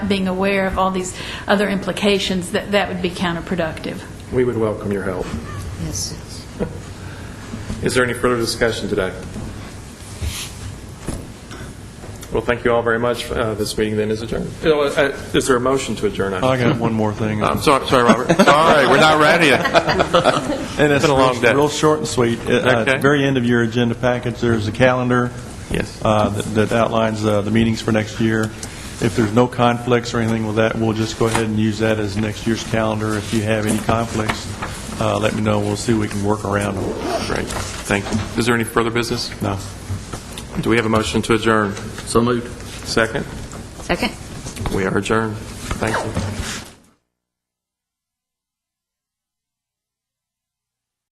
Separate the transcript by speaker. Speaker 1: being aware of all these other implications, that that would be counterproductive.
Speaker 2: We would welcome your help.
Speaker 3: Yes.
Speaker 2: Is there any further discussion today? Well, thank you all very much. Uh, This meeting then is adjourned. You know, uh, Is there a motion to adjourn?
Speaker 4: I got one more thing.
Speaker 2: I'm
Speaker 4: And
Speaker 2: sorry, sorry, Robert.
Speaker 5: Sorry, we're not ready yet.
Speaker 4: it's
Speaker 2: been a long day.
Speaker 4: real short and sweet. Uh, At
Speaker 2: Okay.
Speaker 4: the very end of your agenda package, there's a calendar
Speaker 2: Yes.
Speaker 4: uh, that that outlines uh, the meetings for next year. If there's no conflicts or anything with that, we'll just go ahead and use that as next year's calendar. If you have any conflicts, uh, let me know, we'll see what we can work around them.
Speaker 2: Great, thank you. Is there any further business?
Speaker 4: No.
Speaker 2: Do we have a motion to adjourn? So moved. Second?
Speaker 3: Second?
Speaker 2: We are adjourned. Thank you.